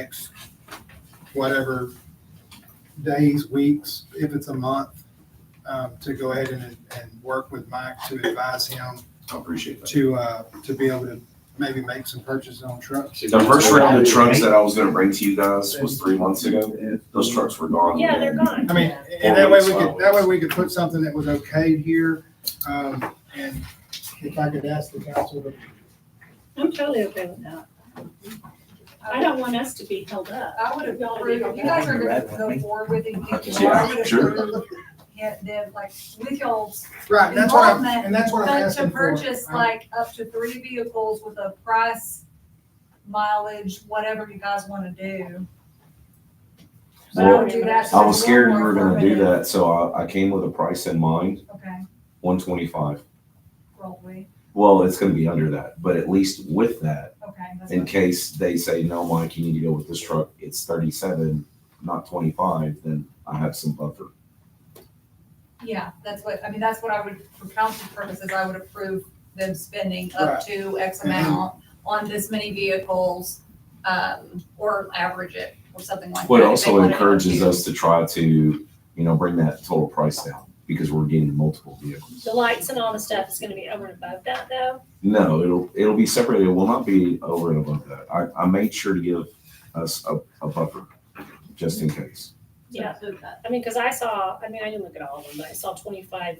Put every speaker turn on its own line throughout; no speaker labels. next whatever days, weeks, if it's a month, um, to go ahead and, and work with Mike to advise him
I appreciate that.
to, uh, to be able to maybe make some purchases on trucks.
The first round of trucks that I was gonna bring to you guys was three months ago. Those trucks were gone.
Yeah, they're gone.
I mean, and that way we could, that way we could put something that was okay here, um, and if I could ask the council to
I'm totally okay with that. I don't want us to be held up.
I would have approved, if you guys are gonna go forward with it, you know, I
Yeah,
would have
sure.
approved, yeah, then like, with y'all's
Right, that's what I'm,
Involvement,
and that's what I'm
but to
asking for. Um,
purchase
I'm-
like up to three vehicles with a price, mileage, whatever you guys wanna do. But I would do that. so
I was
it's
scared
more
you were gonna do
affirmative.
that, so I, I came with a price in mind,
Okay,
one twenty-five.
probably,
Well, it's gonna be under that, but at least with that,
okay, that's
in
what,
case they say, no, Mike, you need to go with this truck, it's thirty-seven, not twenty-five, then I have some buffer.
yeah, that's what, I mean, that's what I would, for council purposes, I would approve them spending up
Right. Mm-hmm.
to X amount on this many vehicles, um, or average it, or something like that.
What
if they
also
wanted to
encourages
do-
us to try to, you know, bring that total price down, because we're getting multiple vehicles.
The lights and all the stuff is gonna be over and above that though.
No, it'll, it'll be separated. It will not be over and above that. I, I made sure to give us a, a buffer, just in case.
Yeah. I mean, cause I saw, I mean, I didn't look at all of them, but I saw twenty-five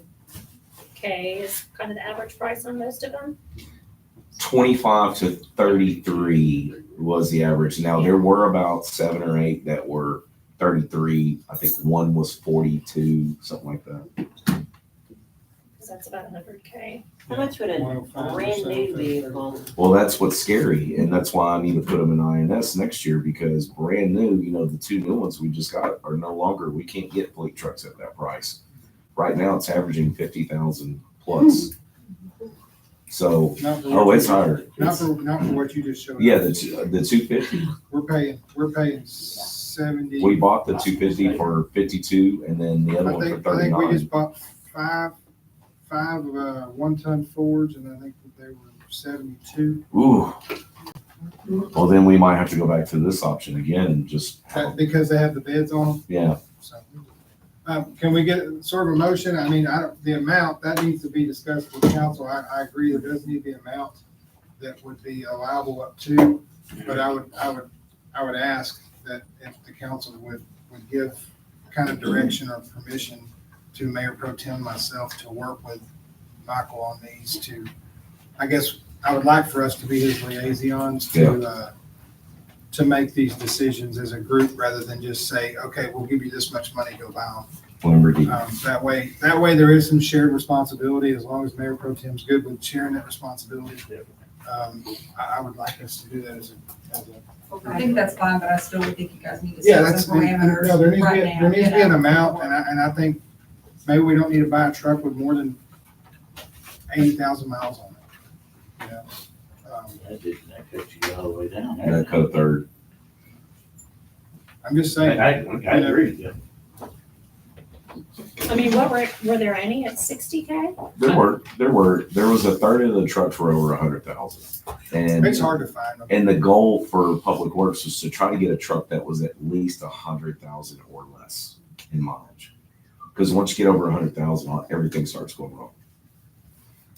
K is kind of the average price on most of them.
Twenty-five to thirty-three was the average. Now, there were about seven or eight that were thirty-three. I think one was forty-two, something like that.
Cause that's about hundred K.
How much would a
105 or
brand new
something.
vehicle,
Well, that's what's scary, and that's why I need to put them in INS next year, because brand new, you know, the two new ones we just got are no longer, we can't get fleet trucks at that price. Right now, it's averaging fifty thousand plus. So,
Not for
oh,
what
it's
you-
higher.
Not for, not for what you just showed.
Yeah,
us.
the, two- the two fifty,
We're paying, we're paying seventy.
we bought the two fifty for fifty-two, and then the other
I
one for
think, I think we
thirty-nine.
just bought five, five, uh, one-ton Fords, and I think that they were seventy-two.
Ooh. Well, then we might have to go back to this option again and just,
That, because they have the beds on them,
yeah,
so. Um, can we get sort of a motion? I mean, I, don't- the amount, that needs to be discussed with council. I, I agree, there does need to be an amount that would be allowable up to, but I would, I would, I would ask that if the council would, would give kind of direction or permission to Mayor Pro Tem myself to work with Michael on these to, I guess, I would like for us to be his liaisons to, uh, to make these decisions as a group rather than just say, okay, we'll give you this much money, go buy them.
whatever. he-
Um, that way, that way there is some shared responsibility, as long as Mayor Pro Tem's good with sharing that responsibility. Um, I, I would like us to do that as a, as a.
I think that's fine, but I still would think you guys need to
Yeah,
set
that's,
some parameters
no, there needs to be,
right now.
there needs to be
you
an
know.
amount, and I, and I think maybe we don't need to buy a truck with more than eighty thousand miles on it. you know? Um,
That didn't, that cut you all the way down.
Yeah, cut a third.
I'm just
I,
saying,
I I agree with you.
I mean, what were, were there any at sixty K?
There were, there were, there was a third of the trucks were over a hundred thousand. And
it's hard to find them.
And the goal for Public Works was to try to get a truck that was at least a hundred thousand or less in mileage. Because once you get over a hundred thousand, everything starts going wrong.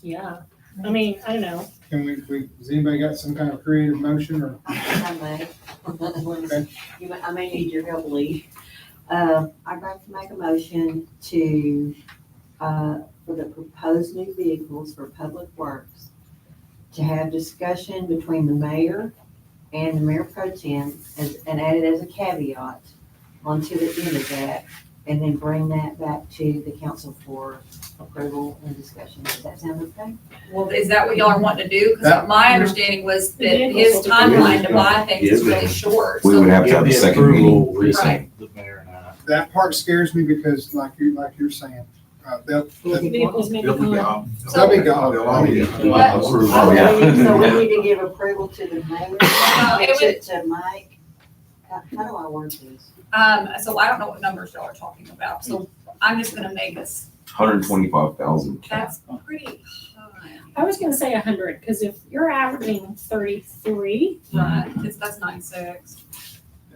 Yeah. I mean, I don't know.
Can we, we, has anybody got some kind of creative motion or?
I may, let me see. You may- I may need your help, Lee. Um, I'd like to make a motion to, uh, for the proposed new vehicles for Public Works, to have discussion between the mayor and the mayor pro tem, as- and add it as a caveat onto the end of that, and then bring that back to the council for approval and discussion. Does that sound okay?
Well, is that what y'all are wanting to do?
That-
Because my understanding was that
Vehicles
his
will be-
timeline to buy things is
Yeah.
really short.
We
so-
would have to have a
Yeah, the
second meeting.
approval is
Right.
The mayor and I.
That part scares me because like you, like you're saying, uh, they'll, they'll
Vehicles may be
They'll be
gone.
gone.
they'll be gone.
They'll all be
I
gone.
mean,
Yeah.
Oh, yeah.
So we need to give approval to the mayor,
it
to, to Mike. How how do I word this?
Um, so I don't know what numbers y'all are talking about, so I'm just gonna make this,
Hundred twenty-five thousand.
that's pretty high,
I was gonna say a hundred, cause if you're averaging thirty-three,
right? It's, that's nine six.